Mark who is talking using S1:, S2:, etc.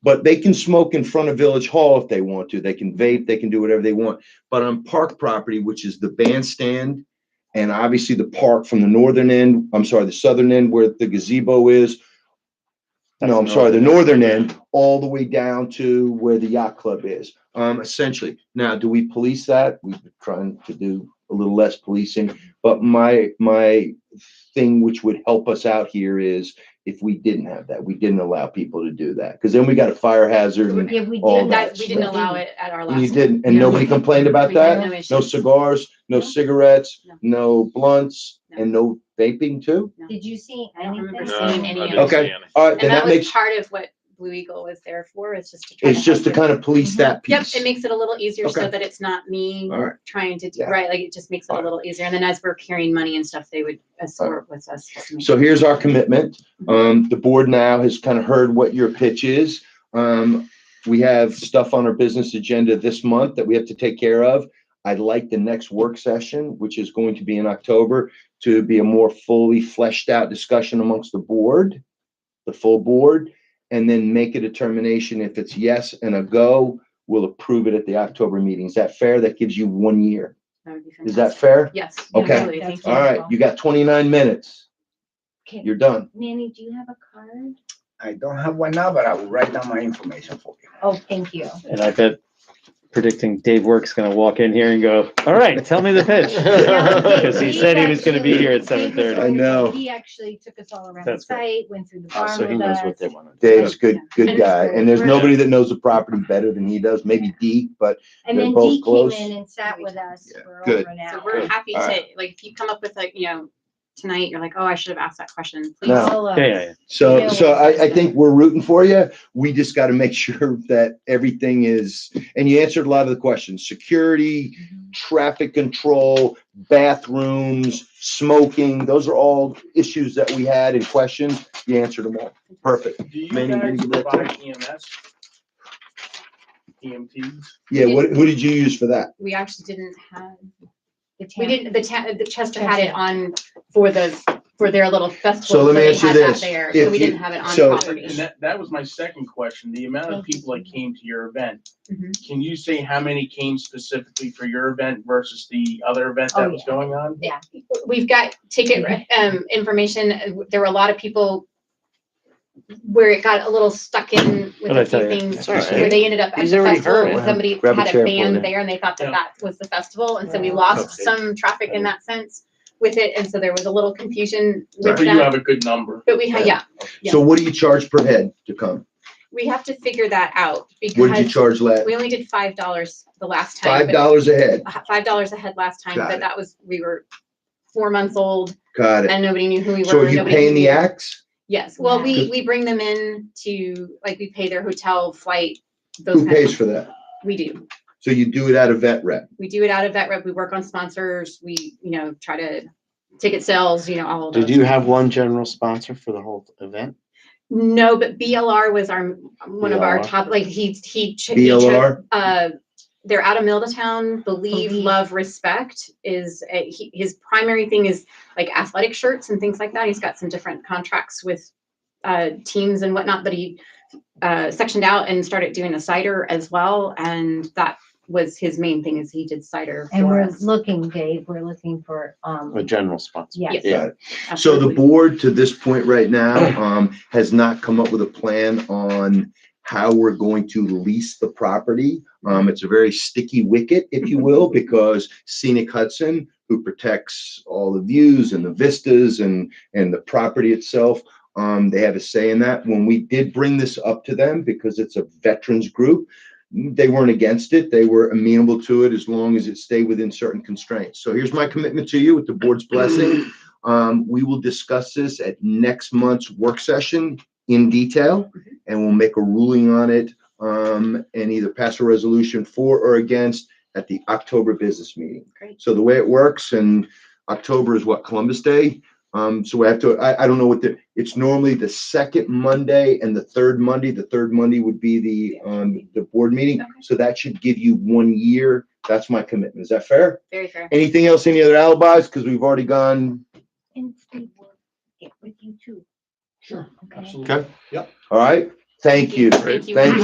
S1: But they can smoke in front of Village Hall if they want to. They can vape, they can do whatever they want. But on park property, which is the bandstand and obviously the park from the northern end, I'm sorry, the southern end where the gazebo is. No, I'm sorry, the northern end, all the way down to where the yacht club is, um, essentially. Now, do we police that? We've been trying to do a little less policing. But my, my thing which would help us out here is if we didn't have that, we didn't allow people to do that. Cause then we got a fire hazard and
S2: Yeah, we
S1: all
S2: did, that,
S1: that
S2: we didn't
S1: stuff.
S2: allow it at our last.
S1: and you
S2: one.
S1: didn't, and
S2: Yeah.
S1: nobody complained about
S2: We had
S1: that?
S2: no
S1: No
S2: issues.
S1: cigars, no
S2: No.
S1: cigarettes,
S2: No.
S1: no blunts,
S2: No.
S1: and no vaping too?
S3: Did you see
S2: I don't remember
S3: anything?
S2: No, seeing any
S4: I
S2: of
S4: didn't
S1: Okay.
S4: see any.
S1: All right,
S2: And
S1: then
S2: that
S1: that
S2: was
S1: makes,
S2: part of what Blue Eagle was there for, is just to try.
S1: it's just to
S2: help you.
S1: kind of police that
S2: Yep,
S1: piece.
S2: it makes it a little easier so
S1: Okay.
S2: that it's not me
S1: All right.
S2: trying to, do
S1: Yeah.
S2: right, like it just makes it a
S1: All right.
S2: little easier. And then as we're carrying money and stuff, they would assort with us. to make-
S1: So here's our commitment. Um, the board now has kind of heard what your pitch is. Um, we have stuff on our business agenda this month that we have to take care of. I'd like the next work session, which is going to be in October, to be a more fully fleshed out discussion amongst the board, the full board, and then make a determination if it's yes and a go, we'll approve it at the October meeting. Is that fair? That gives you one year.
S2: That would be
S1: Is that
S2: fantastic.
S1: fair?
S2: Yes.
S1: Okay.
S2: absolutely,
S3: Yeah,
S2: thank you.
S1: All right, you got twenty-nine minutes.
S3: Okay.
S1: You're done.
S3: Manny, do you have a card?
S5: I don't have one now, but I will write down my information for you.
S3: Oh, thank you.
S6: And I bet predicting Dave Work's gonna walk in here and go, all right, tell me the pitch. Because he said he was gonna be here at seven
S1: I
S6: thirty.
S1: know.
S3: He actually took us all around the
S6: That's great.
S3: site, went through the
S7: Uh,
S3: barn
S6: So he
S3: with
S6: knows
S3: us.
S6: what they want to do.
S1: Dave's good, good guy, and there's nobody that knows the property better than he does, maybe Deke, but
S3: And
S1: They're
S3: then
S1: both
S3: Dee came
S1: close.
S3: in and sat with us
S1: Yeah,
S3: for
S1: good.
S3: over an
S2: So
S3: hour.
S2: we're happy
S1: All
S2: to, like, if you come up with like, you know, tonight, you're like, oh, I should have asked that question, please.
S1: No.
S3: Solo.
S6: Yeah, yeah, yeah.
S1: So,
S3: Yeah.
S1: so I, I think we're rooting for you. We just got to make sure that everything is, and you answered a lot of the questions, security,
S2: Mm-hmm.
S1: traffic control, bathrooms, smoking. Those are all issues that we had and questions. You answered them all. Perfect.
S8: Do you
S1: Many, many
S8: guys
S1: good
S8: provide E EMS? EMTs?
S1: Yeah, what, who did you use for that?
S2: We actually didn't have,
S3: The
S2: we
S3: town-
S2: didn't, the ta- the Chester had it on for the, for their little festival.
S1: So let me
S2: they
S1: ask you
S2: had that
S1: this.
S2: there,
S1: If
S2: So we
S1: you-
S2: didn't have it on
S1: so-
S8: And and
S2: property.
S8: that, that was my second question, the amount of people that came to your event.
S2: Mhm.
S8: Can you say how many came specifically for your event versus the other event
S3: Oh,
S8: that was going on?
S2: We've got ticket,
S8: Mm-hmm.
S2: um, information, there were a lot of people where it got a little stuck in with
S6: What'd I
S2: a few
S6: tell you?
S2: things,
S6: It's all
S2: where
S6: right.
S2: they ended up at
S6: He's
S2: the
S6: already
S2: festival,
S6: heard
S2: and
S1: it.
S2: somebody
S1: Grab a
S2: had a
S1: chair for him.
S2: band there and they thought that
S8: Yeah.
S2: that was the festival, and so we
S3: Wow.
S2: lost
S1: Okay.
S2: some traffic in that sense with it, and so there was a little confusion
S8: So
S2: with
S8: you
S2: that.
S8: have a good number.
S2: But we had, yeah,
S1: So what do you charge per head to come?
S2: we have to figure that out
S1: What did you
S2: because
S1: charge last?
S2: we only did five dollars the last time.
S1: Five
S2: but-
S1: dollars a head.
S2: uh, Five dollars a head last time,
S1: Got
S2: but
S1: it.
S2: that was, we were four months old
S1: Got it.
S2: and nobody knew who we were.
S1: So are you
S2: nobody
S1: paying the
S2: knew-
S1: acts?
S2: Yes, well, we,
S1: Good.
S2: we bring them in to, like, we pay their hotel, flight, those
S1: Who
S2: kinds
S1: pays
S2: of,
S1: for that?
S2: we do.
S1: So you do it out of vet rep?
S2: We do it out of that rep, we work on sponsors, we, you know, try to, ticket sales, you know, all of those.
S7: Did you have one general sponsor for the whole event?
S2: No, but BLR was our, one of our
S7: BLR.
S2: top, like, he, he. ch- he chose-
S1: BLR?
S2: uh, they're out of Middletown. Believe,
S3: Believe.
S2: love, respect is a, he, his primary thing is like athletic shirts and things like that. He's got some different contracts with uh, teams and whatnot, but he uh, sectioned out and started doing the cider as well, and that was his main thing. Is he did cider
S3: And
S2: for
S3: we're
S2: us.
S3: looking, Dave, we're looking for, um,
S7: A general sponsor?
S3: yeah.
S2: Yes.
S7: Yeah.
S1: So the
S2: absolutely.
S1: board to this point right now, um, has not come up with a plan on how we're going to lease the property. Um, it's a very sticky wicket, if you will, because Scenic Hudson, who protects all the views and the vistas and, and the property itself, um, they have a say in that. When we did bring this up to them, because it's a veterans group, they weren't against it. They were amenable to it as long as it stayed within certain constraints. So here's my commitment to you with the board's blessing. Um, we will discuss this at next month's work session in detail, and we'll make a ruling on it, um, and either pass a resolution for or against at the October business meeting.
S2: Great.
S1: So the way it works, and October is what, Columbus Day? Um, so we have to, I, I don't know what the, it's normally the second Monday and the third Monday. The third Monday would be the, um, the board meeting.
S2: Okay.
S1: So that should give you one year. That's my commitment. Is that fair?
S2: very fair.
S1: Anything else? Any other alibis? Because we've already gone
S3: And Steve will get with you too. Sure. Okay.
S1: Okay. Yep. All right, Thank you.
S2: Thank you.
S1: Thank